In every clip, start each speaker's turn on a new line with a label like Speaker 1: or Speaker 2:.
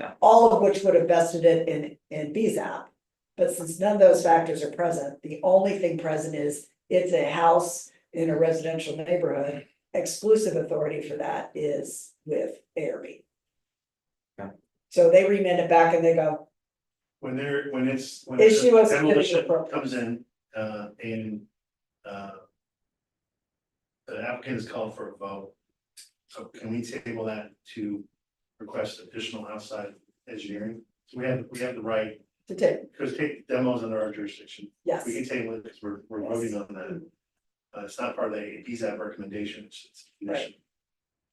Speaker 1: Yeah.
Speaker 2: All of which would have vested it in, in BZAP. But since none of those factors are present, the only thing present is it's a house in a residential neighborhood. Exclusive authority for that is with ARB.
Speaker 1: Yeah.
Speaker 2: So they remand it back and they go,
Speaker 3: When they're, when it's. when
Speaker 2: Issue of certificate of
Speaker 3: Demolition
Speaker 2: appropriate-
Speaker 3: comes in, uh, and, uh. The applicant is called for a vote. So can we table that to request additional outside engineering? So we have, we have the right,
Speaker 2: to take,
Speaker 3: because take demos under our jurisdiction,
Speaker 2: yes,
Speaker 3: we can table it because we're, we're voting on that. Uh, it's not part of the BZAP recommendation, it's, it's a condition.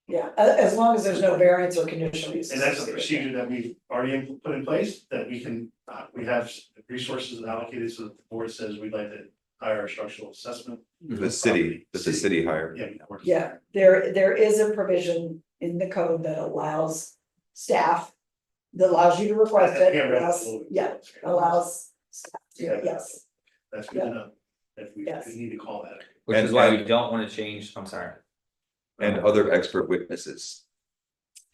Speaker 2: yeah, a- as long as there's no variance or conditional use.
Speaker 3: And that's a procedure that we've already in- put in place, that we can, uh, we have resources allocated, so that the board says we'd like to hire a structural assessment.
Speaker 1: The city, that the city hired.
Speaker 3: Yeah. that works.
Speaker 2: Yeah, there, there is a provision in the code that allows staff, that allows you to request it,
Speaker 3: Yeah, right.
Speaker 2: allows, yeah, allows. staff to-
Speaker 3: Yeah.
Speaker 2: Yes,
Speaker 3: That's good enough, if we,
Speaker 2: Yes.
Speaker 3: we need to call that.
Speaker 4: Which
Speaker 1: And-
Speaker 4: is why we
Speaker 1: and-
Speaker 4: don't wanna change, I'm sorry,
Speaker 1: And other expert witnesses.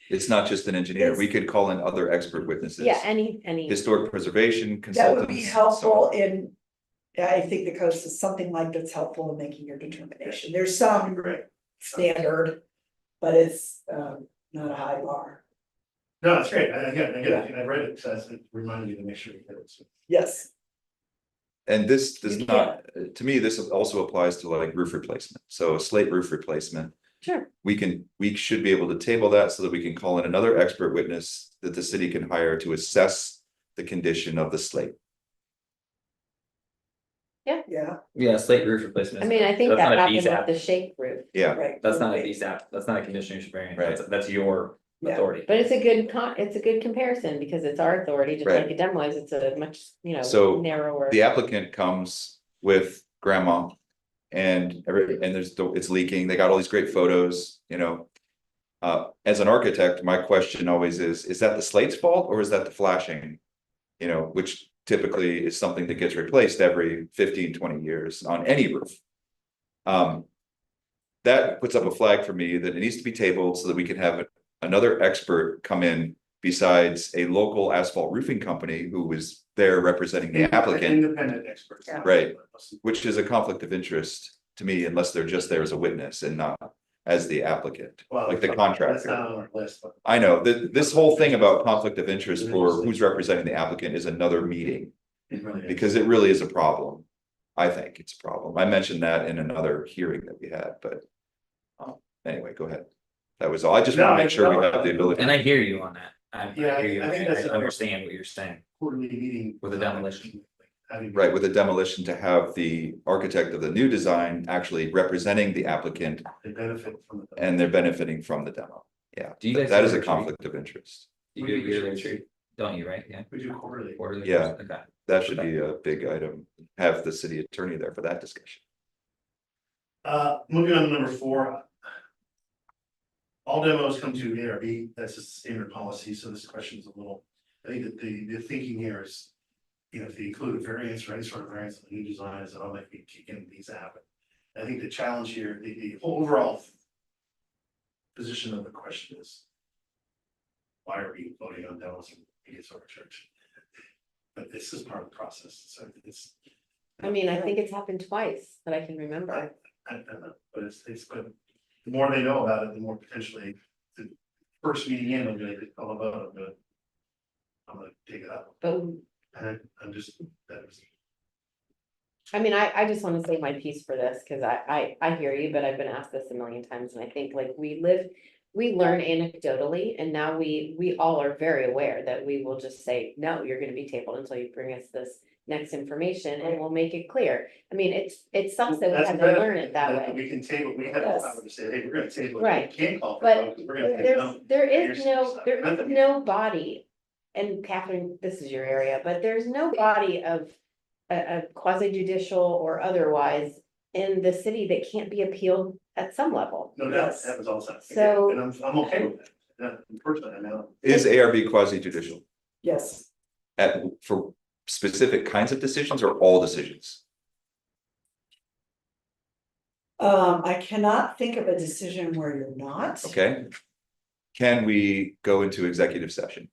Speaker 1: It's not just an engineer, we could call in other expert witnesses.
Speaker 5: Yeah, any, any.
Speaker 1: Historic preservation
Speaker 2: that
Speaker 1: consultants.
Speaker 2: would be
Speaker 1: so on.
Speaker 2: helpful in, I think the code says something like that's helpful in making your determination, there's some
Speaker 3: Great,
Speaker 2: standard. But it's um not a high bar,
Speaker 3: no, that's great, I, again, again, I read it, so that's- it reminded me to make sure we did it, so.
Speaker 2: yes,
Speaker 1: And this does
Speaker 2: You
Speaker 1: not, uh, to me, this also applies to like roof replacement, so a slate roof replacement.
Speaker 5: Sure.
Speaker 1: We can, we should be able to table that so that we can call in another expert witness that the city can hire to assess the condition of the slate.
Speaker 2: yeah,
Speaker 4: yeah, slate roof replacement.
Speaker 5: I
Speaker 4: is-
Speaker 5: mean, I think
Speaker 4: that's
Speaker 5: that
Speaker 4: not a
Speaker 5: happened with
Speaker 4: VSAP.
Speaker 5: the shake roof,
Speaker 1: Yeah,
Speaker 2: right.
Speaker 4: That's not a VSAP, that's not a conditional use variant,
Speaker 1: Right.
Speaker 4: that's, that's your
Speaker 2: Yeah.
Speaker 4: authority.
Speaker 5: but it's a good con, it's a good comparison because it's our authority, just
Speaker 1: Right.
Speaker 5: like a demo is, it's a much, you
Speaker 1: So,
Speaker 5: know, narrower.
Speaker 1: the applicant comes with grandma. And every, and there's, the- it's leaking, they got all these great photos, you know. Uh, as an architect, my question always is, is that the slate's fault or is that the flashing? You know, which typically is something that gets replaced every 15, 20 years on any roof. Um. That puts up a flag for me that it needs to be tabled so that we can have another expert come in. Besides a local asphalt roofing company who was there representing the applicant
Speaker 3: Independent experts.
Speaker 2: Yeah.
Speaker 1: Right. which is a conflict of interest to me unless they're just there as a witness and not as the applicant.
Speaker 3: Well,
Speaker 1: Like the
Speaker 3: That's
Speaker 1: contractor.
Speaker 3: not on our list, but.
Speaker 1: I know that this whole thing about conflict of interest for who's representing the applicant is another meeting
Speaker 3: it really is.
Speaker 1: because it really is a problem. I think it's a problem. I mentioned that in another hearing that we had, but um, anyway, go ahead. That was all. I just want to make sure we have the ability.
Speaker 4: And I hear you on that, I, I
Speaker 3: Yeah, I-
Speaker 4: hear you,
Speaker 3: I think
Speaker 4: and I
Speaker 3: that's a-
Speaker 4: understand what you're saying,
Speaker 3: Quarterly meeting.
Speaker 4: With the demolition.
Speaker 3: Having-
Speaker 1: Right, with the demolition to have the architect of the new design actually representing the applicant
Speaker 3: They benefit from it.
Speaker 1: and they're benefiting from the demo. Yeah,
Speaker 4: Do you guys
Speaker 1: that
Speaker 4: do
Speaker 1: is a
Speaker 4: retreat?
Speaker 1: conflict of interest.
Speaker 4: you do yearly retreat, don't you, right, yeah?
Speaker 3: We do quarterly.
Speaker 4: Quarterly,
Speaker 1: Yeah.
Speaker 4: Okay,
Speaker 1: That should be a big item, have the city attorney there for that discussion.
Speaker 3: Uh, moving on to number four. All demos come to ARB, that's a standard policy, so this question is a little, I think that the, the thinking here is. You know, if they include a variance or any sort of variance in the new design, is that all might be kicking these out. I think the challenge here, the, the overall. Position of the question is. Why are we voting on demos and it's church? But this is part of the process, so it's,
Speaker 5: I mean, I think it's happened twice that I can remember.
Speaker 3: I don't know, but it's, it's good. The more they know about it, the more potentially, the first meeting in, I'm like, all about, I'm gonna. I'm gonna take it up,
Speaker 5: But
Speaker 3: and I'm just, that was,
Speaker 5: I mean, I, I just wanna say my piece for this, cause I, I, I hear you, but I've been asked this a million times, and I think like we live. We learn anecdotally, and now we, we all are very aware that we will just say, no, you're gonna be tabled until you bring us this. Next information, and we'll make it clear, I mean, it's, it sucks that we
Speaker 3: That's
Speaker 5: have to
Speaker 3: better
Speaker 5: learn it that way.
Speaker 3: we can table, we have the
Speaker 2: Yes.
Speaker 3: power to say, hey, we're gonna table. it.
Speaker 5: Right.
Speaker 3: We Can't call. for um,
Speaker 5: But
Speaker 3: vote, 'cause we're gonna
Speaker 5: There-
Speaker 3: take it
Speaker 5: There's,
Speaker 3: down.
Speaker 5: there is
Speaker 3: Here's-
Speaker 5: no, there is no body, and Catherine, this is your area, but there's no body of. A, quasi judicial or otherwise in the city that can't be appealed at some level.
Speaker 3: No doubt,
Speaker 2: Yes.
Speaker 3: that was all set.
Speaker 5: So-
Speaker 3: And I'm, I'm okay with that, that, personally, I know,
Speaker 1: Is ARB quasi judicial
Speaker 2: yes.
Speaker 1: at, for specific kinds of decisions or all decisions?
Speaker 2: Um, I cannot think of a decision where you're not.
Speaker 1: Okay? Can we go into executive session?